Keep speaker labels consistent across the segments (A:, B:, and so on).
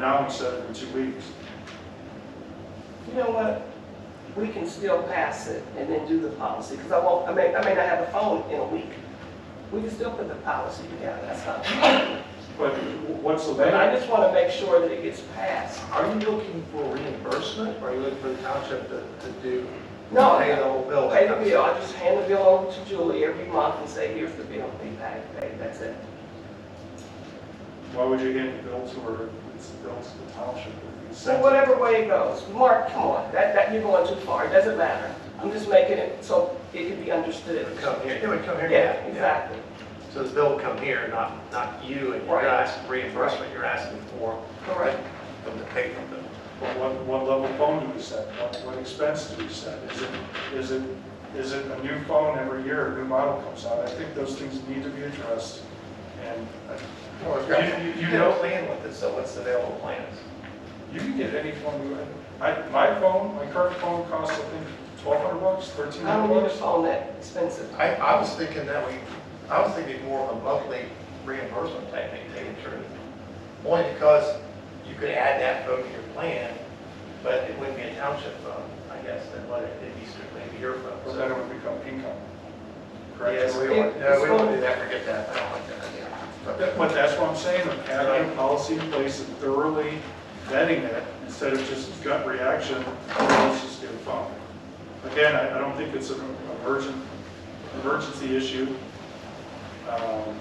A: now instead of in two weeks.
B: You know what? We can still pass it and then do the policy, because I won't, I may, I may not have a phone in a week. We can still put the policy together, that's not,
A: But w- what's the
B: but I
A: value?
B: just want to make sure that it gets passed.
C: Are you looking for reimbursement, or are you looking for the township to, to do?
B: No.
C: Pay the whole bill?
B: Pay the bill, I just hand the bill over to Julie every month and say, here's the bill, be paid, paid, that's it.
A: Why would you hand the bill to her? if It's the bill to the township. if you
B: So
A: sent it?
B: whatever way it goes, Mark, come on, that, that, you're going too far, it doesn't matter. I'm just making it so it can be
C: It
B: understood.
C: would come here, it would come here?
B: Yeah, exactly.
C: So the bill would come here, not, not you, and you're
B: Right.
C: asking reimbursement, you're asking for
B: Correct.
C: them to pay for them.
A: What, what- what level phone do we set? What, what expense do we set? Is it, is it, is it a new phone every year, a new model comes out? I think those things need to be addressed. And uh,
C: Well, it's
A: got- You- you- you know-
C: plan with it, so what's the available plans?
A: you can get any phone you want. I, my phone, my current phone costs, I think, twelve hundred bucks, thirteen
B: I don't
A: hundred
B: need a
A: bucks.
B: phone that expensive.
C: I, I was thinking that we, I was thinking more of a monthly reimbursement type thing, to tell you the truth. Only because you could add that phone to your plan, but it wouldn't be a township phone, I guess, then what, it'd be strictly your phone.
A: Or then it would become income. Correct?
C: Yes, we
B: won't-
C: would,
B: no,
C: no,
B: we
C: we
B: won't
C: would
B: do
C: do that, forget that, I don't like that idea.
A: But but that's what I'm saying, of having a policy in place and thoroughly vetting it instead of just gut reaction, let's just get a phone. Again, I, I don't think it's an emergent, emergency issue, um,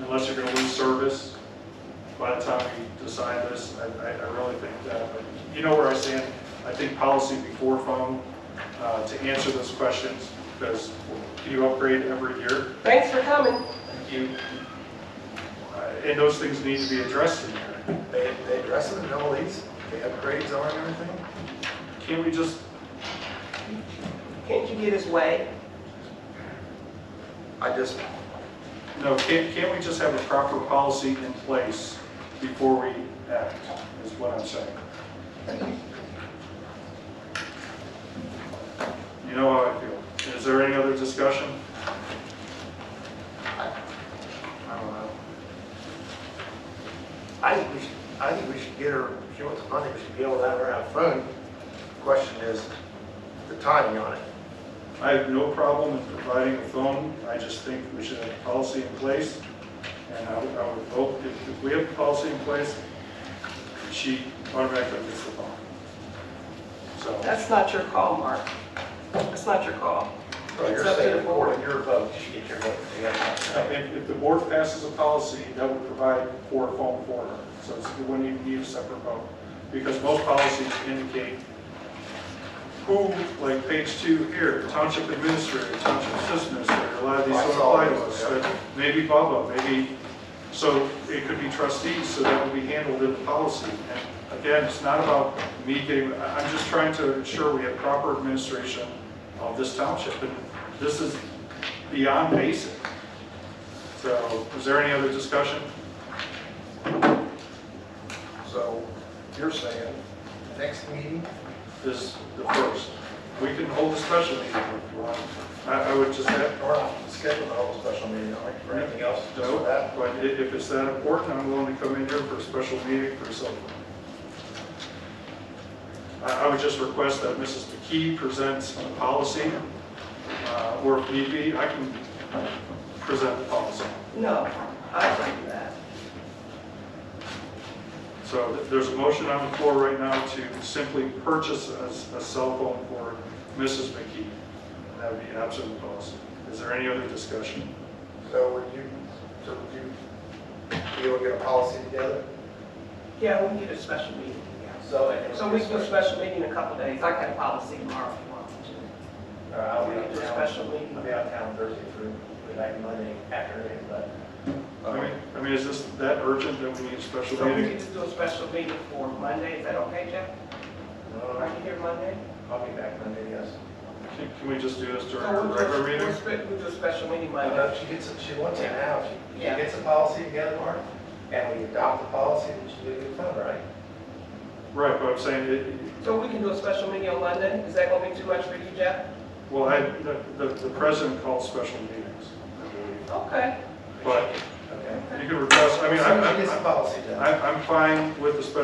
A: unless you're gonna lose service by the time we decide this. I, I, I really think that, but you know where I stand. I think policy before phone, uh, to answer those questions, because can you upgrade every year?
B: Thanks for coming.
A: you, Uh, and those things need to be addressed in there.
C: They, they address it in all these, they upgrades on everything?
A: Can't we just,
B: Can't you get his way?
C: I just,
A: no, can't, can't we just have a proper policy in place before we act, is what I'm saying. You know how I feel. Is there any other discussion?
C: I don't know. I think we should, I think we should get her, if she wants the money, we should be able to have her have a phone. Question is, the timing on it.
A: I have no problem in providing a phone, I just think we should have a policy in place. And I would, I would hope, if, if we have a policy in place, she automatically gets the phone. So.
B: That's not your call, Mark. That's not your call.
C: So you're
B: It's up to
C: saying
B: the
C: the board
B: board.
C: and your vote, you should get your vote
A: Uh,
C: together.
A: If, if the board passes a policy, that would provide for a phone for her, so it's- it wouldn't even need a separate vote. Because most policies indicate who, like page two here, township administrator, township assistant administrator, a lot of these don't apply to us. but Maybe Bubba, maybe, so it could be trustees, so that would be handled in the policy. And again, it's not about me getting, I- I'm just trying to ensure we have proper administration of this township. And this is beyond basic. So, is there any other discussion?
C: So you're saying, next meeting?
A: This, the first. We can hold a special meeting if you want. I, I would just have,
C: Or not, schedule a whole special meeting, all right, for anything else? Just for
A: no,
C: that?
A: but i- if it's that important, I'm willing to come in here for a special meeting for something. I, I would just request that Mrs. McKee presents a policy, uh, or if need be, I can present the policy.
B: No, I don't do that.
A: So th- there's a motion on the floor right now to simply purchase a a cell phone for Mrs. McKee. And that would be absent policy. Is there any other discussion?
C: So would you, so would you, be able to get a policy together?
B: Yeah, we need a special meeting.
C: So.
B: So we can do a special meeting in a couple days. I got a policy tomorrow if you want me
C: All right, uh, I'll
B: to.
C: be
B: We can
C: out
B: do a
C: of town.
B: special meeting.
C: I'll be out of town Thursday through, like Monday afternoon, but.
A: I mean, I mean, is this that urgent that we need a special
B: So we
A: meeting?
B: could just do a special meeting for Monday. Is that okay, Jeff? Are
C: Uh,
B: you here Monday?
C: I'll be back Monday, yes.
A: Can can we just do this during
B: So
A: our
B: we'll
A: regular
B: just-
A: meeting?
B: We'll spe- we'll do a special meeting
C: I
B: Monday.
C: know uh, she gets, it- she wants it now, She- she
B: Yeah.
C: gets a policy together, Mark, and we adopt the policy that she did with them, right?
A: Right, but I'm saying, it-
B: So we can do a special meeting on Monday? Is that going to be too much for you, Jeff?
A: well, I, the, the- the president calls special meetings. I believe.
B: Okay.
A: But
C: Okay.
A: you can request, I mean,
C: So
A: I'm,
C: She gets a
A: I'm-
C: policy done.
A: I'm, I'm fine with the special